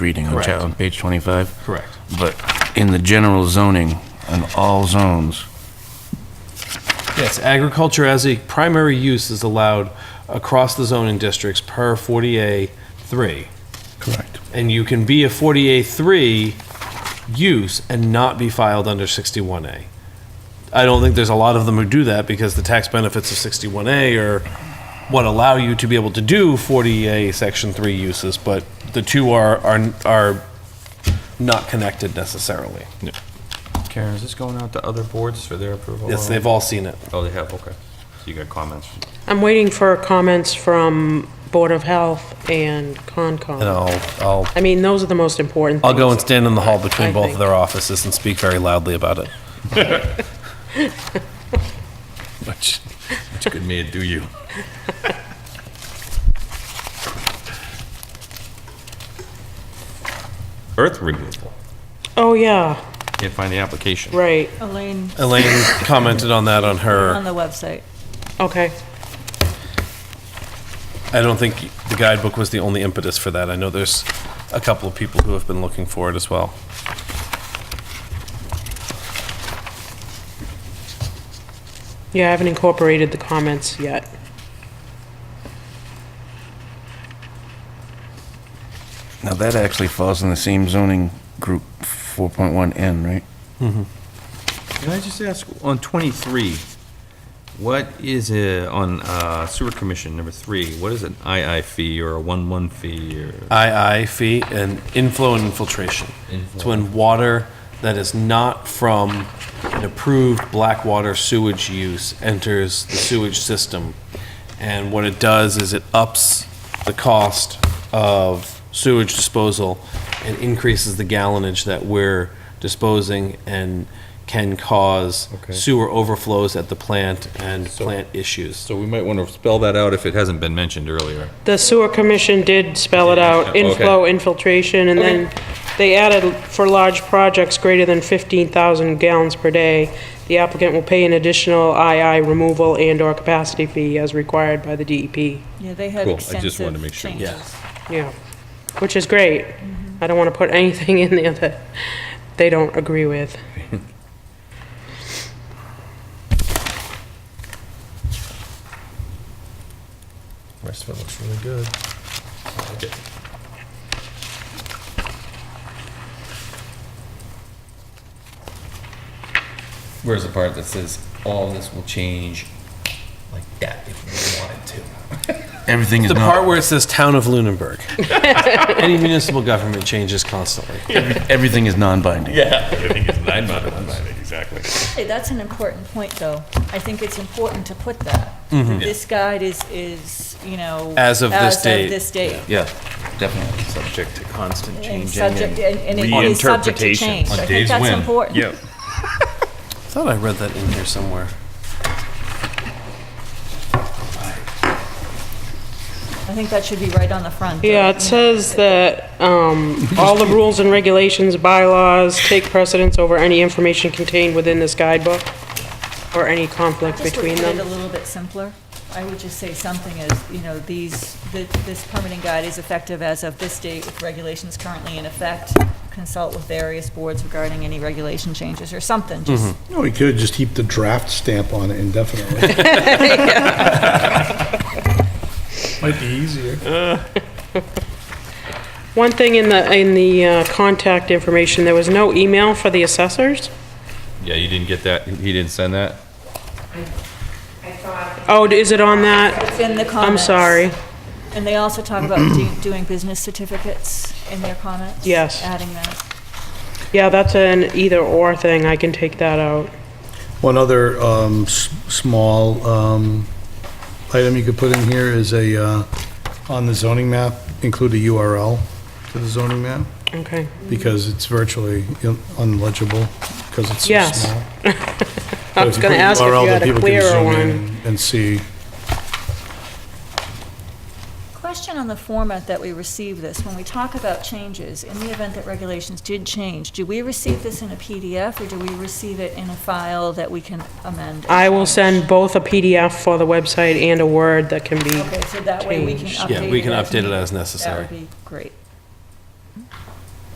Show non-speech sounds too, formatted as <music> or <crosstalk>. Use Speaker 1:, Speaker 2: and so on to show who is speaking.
Speaker 1: reading on chap-
Speaker 2: Correct.
Speaker 1: on page 25.
Speaker 2: Correct.
Speaker 1: But in the general zoning, in all zones,
Speaker 2: Yes, agriculture as a primary use is allowed across the zoning districts per 40A3.
Speaker 3: Correct.
Speaker 2: And you can be a 40A3 use and not be filed under 61A. I don't think there's a lot of them who do that because the tax benefits of 61A are what allow you to be able to do 40A Section 3 uses, but the two are, are, are not connected necessarily.
Speaker 4: Karen, is this going out to other boards for their approval?
Speaker 2: Yes, they've all seen it.
Speaker 4: Oh, they have, okay. So you got comments?
Speaker 5: I'm waiting for comments from Board of Health and
Speaker 2: And
Speaker 5: Concom.
Speaker 2: I'll, I'll
Speaker 5: I mean, those are the most important.
Speaker 2: I'll go and
Speaker 5: things.
Speaker 2: stand in the hall between
Speaker 5: I
Speaker 2: both of
Speaker 5: think.
Speaker 2: their offices and speak very loudly about it.
Speaker 4: <laughs> Which, which good man do you? Earth removal.
Speaker 5: Oh, yeah,
Speaker 4: Can't find the application.
Speaker 5: right,
Speaker 6: Elaine
Speaker 2: Elaine commented on that on
Speaker 6: on
Speaker 2: her.
Speaker 6: the website.
Speaker 5: okay.
Speaker 2: I don't think the guidebook was the only impetus for that. I know there's a couple of people who have been looking for it as well.
Speaker 5: Yeah, I haven't incorporated the comments yet.
Speaker 1: now that actually falls in the same zoning group 4.1N, right?
Speaker 4: Can I just ask, on 23, what is it, on uh, sewer commission number three, what is an II fee or a 1-1 fee or?
Speaker 2: II fee and inflow and infiltration. It's when water that is not from an approved black water sewage use enters the sewage system. And what it does is it ups the cost of sewage disposal and increases the gallonage that we're disposing and can cause
Speaker 4: Okay.
Speaker 2: sewer overflows at the plant and plant issues.
Speaker 4: So we might want to spell that out if it hasn't been mentioned earlier.
Speaker 5: The sewer commission did spell it out,
Speaker 4: Okay.
Speaker 5: inflow, infiltration, and then they added, for large projects greater than 15,000 gallons per day, the applicant will pay an additional II removal and/or capacity fee as required by the E DEP.
Speaker 6: Yeah, they had
Speaker 4: Cool, I just wanted to
Speaker 6: extensive
Speaker 4: make sure.
Speaker 2: Yeah.
Speaker 6: changes.
Speaker 5: Yeah, which is great.
Speaker 6: Mm-hmm.
Speaker 5: I don't want to put anything <laughs> in there that they don't agree with.
Speaker 4: Rest of it looks really good. Where's the part that says all this will change like that if we wanted to?
Speaker 1: Everything is
Speaker 2: The part
Speaker 1: not,
Speaker 2: where it says town of Lunenburg. Any municipal government changes constantly.
Speaker 1: everything is non-binding.
Speaker 4: exactly.
Speaker 6: Hey, that's an important point, though. I think it's important to put that.
Speaker 4: Mm-hmm.
Speaker 6: This guide is, is, you know.
Speaker 2: As of this
Speaker 6: As
Speaker 2: date.
Speaker 6: of this date.
Speaker 1: Yeah, definitely.
Speaker 4: Subject to constant
Speaker 6: And subject, and and it is subject to change. I think that's important.
Speaker 4: Yep.
Speaker 2: I thought I read that in here somewhere.
Speaker 6: I think that should be right on the front.
Speaker 5: Yeah,
Speaker 6: though.
Speaker 5: it says that um, all the rules and regulations, bylaws, take precedence over any information contained within this guidebook or any conflict
Speaker 6: Just
Speaker 5: between
Speaker 6: to put it a
Speaker 5: them.
Speaker 6: little bit simpler, I would just say something as, you know, these, th- this permitting guide is effective as of this date with regulations currently in effect. Consult with various boards regarding any regulation changes or something, just,
Speaker 3: No, we could just keep the draft stamp on it
Speaker 5: <laughs>
Speaker 3: indefinitely. Might be easier.
Speaker 5: One thing in the, in the uh, contact information, there was no email for the assessors?
Speaker 4: Yeah, you didn't get that, he didn't send that?
Speaker 5: Oh, is it on that?
Speaker 6: it's in the
Speaker 5: I'm
Speaker 6: comments.
Speaker 5: sorry.
Speaker 6: And they also
Speaker 5: <clears throat>
Speaker 6: talk about do- doing business certificates in their comments.
Speaker 5: Yes.
Speaker 6: Adding that.
Speaker 5: Yeah, that's an either-or thing. I can take that out.
Speaker 3: One other um, s- small um, item you could put in here is a, uh, on the zoning map, include a URL to the zoning map,
Speaker 5: Okay.
Speaker 3: because it's virtually un- unlegible, because it's so
Speaker 5: Yes.
Speaker 3: small.
Speaker 5: I was going to ask if you had a clearer one.
Speaker 3: And see,
Speaker 6: Question on the format that we receive this, when we talk about changes, in the event that regulations did change, do we receive this in a PDF or do we receive it in a file that we can amend? and
Speaker 5: I will
Speaker 6: change?
Speaker 5: send both a PDF for the website and a Word that can be
Speaker 6: Okay, so that way we can
Speaker 5: Change.
Speaker 6: update it.
Speaker 2: Yeah, we can
Speaker 6: as
Speaker 2: update it
Speaker 6: needed.
Speaker 2: as necessary.
Speaker 6: That would be great.